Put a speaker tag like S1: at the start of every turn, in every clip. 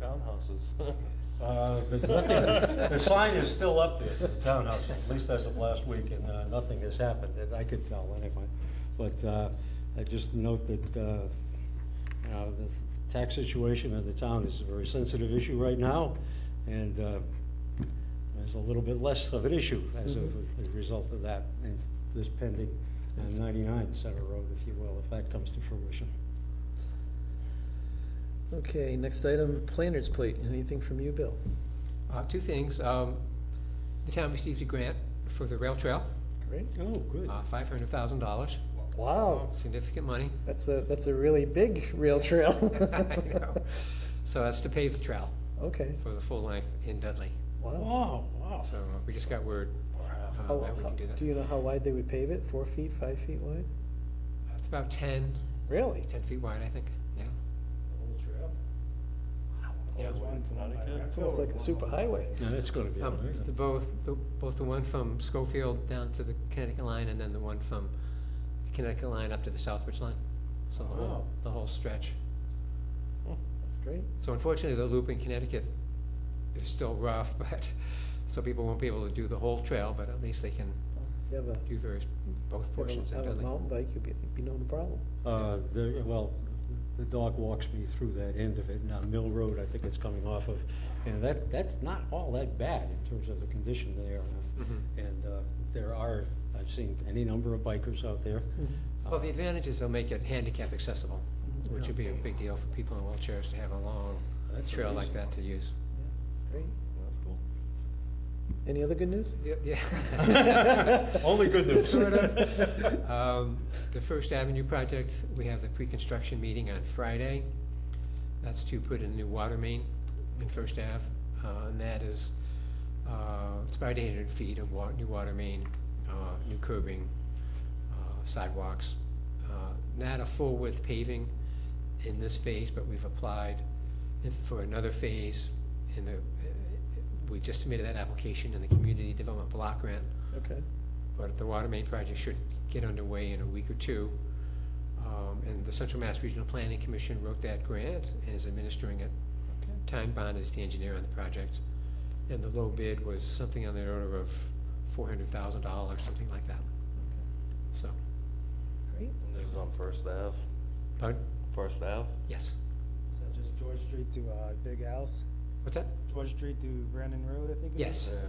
S1: townhouses.
S2: Uh, There's nothing, the sign is still up there for the townhouse, at least as of last week, and uh, nothing has happened, that I could tell anyway. But uh, I just note that, uh, you know, the tax situation in the town is a very sensitive issue right now, and uh, there's a little bit less of an issue as of, as a result of that, and this pending uh, 99 Center Road, if you will, if that comes to fruition.
S3: Okay, next item, planner's plate. Anything from you, Bill?
S4: Uh, Two things. Um, The town received a grant for the rail trail,
S3: Great.
S2: Oh, good.
S4: uh, $500,000,
S3: Wow,
S4: significant money.
S3: that's a, that's a really big rail trail.
S4: I know. So that's to pave the trail
S3: Okay,
S4: for the full length in Dudley.
S3: wow.
S2: Wow, Oh, wow.
S4: So uh, we just got word uh,
S3: How-
S4: that we
S3: how-
S4: can do
S3: Oh, Do you
S4: that.
S3: know how wide they would pave it? Four feet, five feet wide?
S4: It's about 10,
S3: Really?
S4: 10 feet wide, I think, yeah. Yeah.
S3: It's almost like a superhighway.
S2: Now, that's going to be
S4: Um,
S2: amazing.
S4: the Both, the- both the one from Schofield down to the Connecticut line and then the one from Connecticut line up to the Southbridge line. So the
S2: Wow.
S4: whole, the whole stretch.
S3: That's great.
S4: So unfortunately, the loop in Connecticut is still rough, but, so people won't be able to do the whole trail, but at least they can
S3: You have a,
S4: do various, both
S3: you have
S4: portions
S3: a-
S4: in
S3: have a
S4: Dudley.
S3: mountain bike, you'd be, be no problem.
S2: Uh, the, well, the dog walks me through that end of it, now Mill Road, I think it's coming off of, and that, that's not all that bad in terms of the condition there.
S4: Mm-hmm.
S2: And, uh, there are, I've seen any number of bikers out there.
S4: Well, the advantage is they'll make it handicap accessible, which Mm-hmm. would be a big deal for people in wheelchairs to have a long
S2: That's
S4: trail like that to use.
S3: Great. Any other good news?
S4: Yeah, Yeah.
S2: Only good news.
S4: Sort of. Um, The First Avenue project, we have the pre-construction meeting on Friday. That's to put in a new water main in First Ave. Uh, And that is, uh, it's about 800 feet of wa, new water main, uh, new curbing, uh, sidewalks. Uh, Not a full width paving in this phase, but we've applied if- for another phase in the, we just submitted that application in the Community Development Block Grant,
S3: Okay.
S4: but the water main project should get underway in a week or two. Um, And the Central Mass Regional Planning Commission wrote that grant and is administering it. Time Bond is the engineer on the project. And the low bid was something on the order of four hundred thousand dollars, something like that. So,
S3: Great.
S1: This is on First Ave,
S4: pardon?
S1: First Ave.
S4: Yes.
S5: Is that just George Street to uh, Big Al's?
S4: What's that?
S5: George Street to Brandon Road, I think it
S4: Yes. Uh,
S5: is?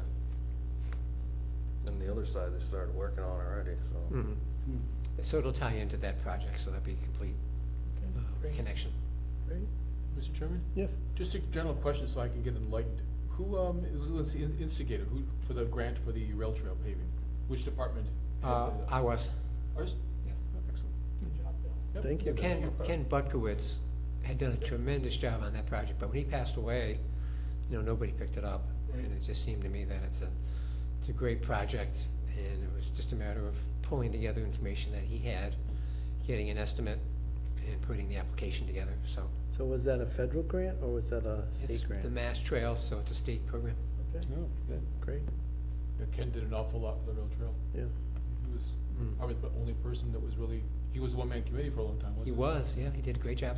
S1: Yeah. And the other side, they started working on already, so.
S4: Mhm.
S5: Hmm.
S4: So it'll tie into that project, so that'd be a complete uh, connection.
S3: Great.
S6: Mr. Chairman,
S3: Yes.
S6: just a general question so I can get enlightened. Who, um, was the instigator, who, for the grant for the rail trail paving? Which department? had
S4: Uh,
S6: the-
S4: I was.
S6: Ours?
S4: Yes.
S6: Oh, Excellent. Yep.
S3: Thank you.
S4: Ken, Ken Butkowitz had done a tremendous job on that project, but when he passed away, you know, nobody picked it up. And it just seemed to me that it's a, it's a great project, and it was just a matter of pulling together information that he had, getting an estimate, and putting the application together, so.
S3: So was that a federal grant or was that a
S4: It's
S3: state
S4: the
S3: grant?
S4: Mass Trail, so it's a state program.
S3: Okay.
S2: Oh, good.
S3: Great,
S6: Yeah, Ken did an awful lot for the rail trail.
S3: yeah.
S6: He was
S2: Hmm.
S4: Mm.
S6: probably the only person that was really, he was a one-man committee for a long time, wasn't
S4: He
S6: he?
S4: was, yeah, he did a great job.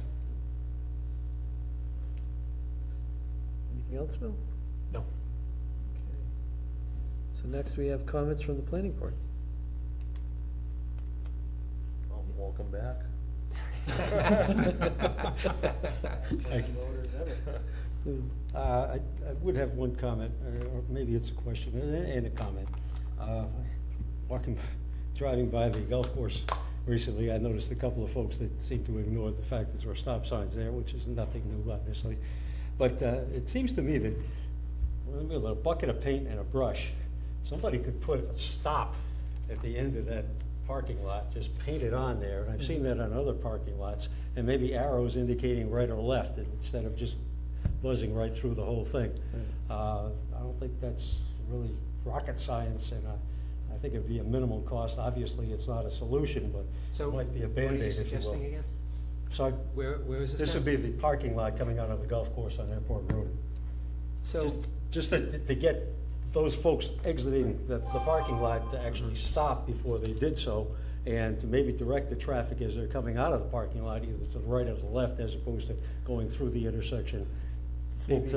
S3: Anything else, Bill?
S4: No.
S3: Okay. So next we have comments from the planning board.
S1: I'm Welcome back.
S2: Thank you.
S5: Voters ever.
S2: Uh, I I would have one comment, or or maybe it's a question and- and a comment. Uh, Walking, driving by the golf course recently, I noticed a couple of folks that seem to ignore the fact that there are stop signs there, which is nothing new, obviously. But uh, it seems to me that with a bucket of paint and a brush, somebody could put a stop at the end of that parking lot, just paint it on there, and I've seen that on other parking lots, and maybe arrows indicating right or left, instead of just buzzing right through the whole thing. Uh, I don't think that's really rocket science, and uh, I, I think it'd be a minimal cost. Obviously, it's not a solution, but
S4: So,
S2: it might be a
S4: what are
S2: Band-Aid,
S4: you
S2: if you will.
S4: suggesting again?
S2: So
S4: Where, where is this
S2: this would
S4: now?
S2: be the parking lot coming out of the golf course on Airport Road.
S4: So,
S2: Just to, to get those folks exiting the, the parking lot to actually stop before they did so, and to maybe direct the traffic as they're coming out of the parking lot, either to the right or the left, as opposed to going through the intersection full tilt.